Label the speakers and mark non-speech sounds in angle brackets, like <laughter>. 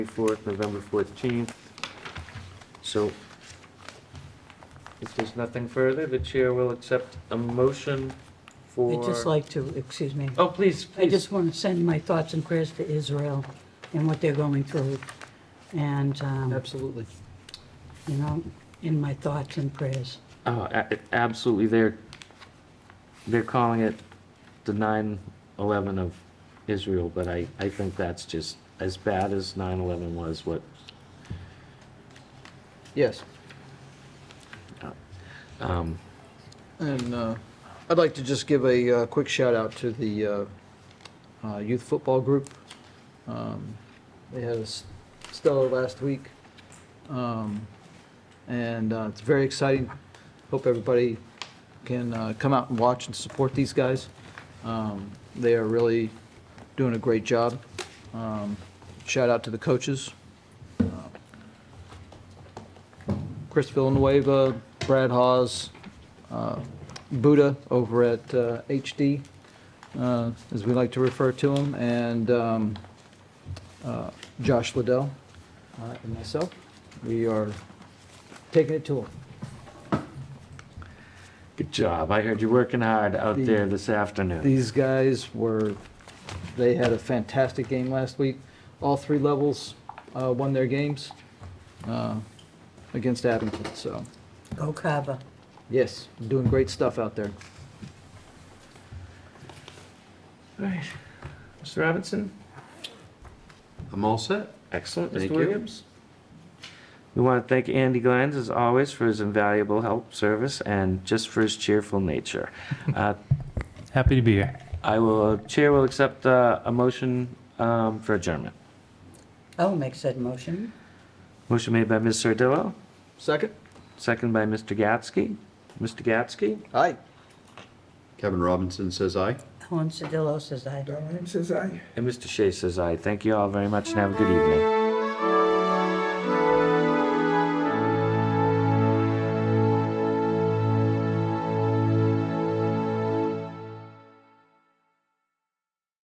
Speaker 1: 4th, November 14th. So if there's nothing further, the chair will accept a motion for...
Speaker 2: I'd just like to, excuse me,
Speaker 1: Oh, please,
Speaker 2: I
Speaker 1: please.
Speaker 2: just want to send my thoughts and prayers to Israel and what they're going through. And, um,
Speaker 1: Absolutely.
Speaker 2: you know, in my thoughts and prayers.
Speaker 1: Oh, a- absolutely. They're, they're calling it the 9/11 of Israel, but I, I think that's just as bad as 9/11 was, what,
Speaker 3: Yes,
Speaker 1: um,
Speaker 3: and uh, I'd like to just give a uh, quick shout out to the uh, uh, youth football group. Um, They had a s- stellar last week, Um, and uh, it's very exciting. Hope everybody can uh, come out and watch and support these guys. Um, They are really doing a great job. Um, Shout out to the coaches, Uh, Chris Villanueva, Brad Hawes, uh, Buddha over at uh, HD, uh, as we like to refer to him, and um, uh, Josh Liddell uh, and myself. We are taking it to him.
Speaker 1: good job. I heard you're working hard out
Speaker 3: The-
Speaker 1: there this afternoon.
Speaker 3: These guys were, they had a fantastic game last week. All three levels uh, won their games uh, against Abington, so,
Speaker 2: Go Kava.
Speaker 3: yes, doing great stuff out there.
Speaker 1: All right. Mr. Robinson?
Speaker 4: I'm all set.
Speaker 1: Excellent, Mr.
Speaker 4: Thank you.
Speaker 1: Williams. We want to thank Andy Glines, as always, for his invaluable help, service, and just for his cheerful <laughs> nature. Uh,
Speaker 5: Happy to be here.
Speaker 1: I will, Chair will accept uh, a motion um, for adjournment.
Speaker 2: I will Oh, make said motion.
Speaker 1: Motion made by Ms. Sardillo,
Speaker 3: Second?
Speaker 1: second by Mr. Gatsky. Mr. Gatsky?
Speaker 3: Aye.
Speaker 4: Kevin Robinson says aye.
Speaker 2: Helen Sodillo says aye.
Speaker 6: Don Ryan says aye.
Speaker 1: And Mr. Shea says aye. Thank you all very much and have a good evening.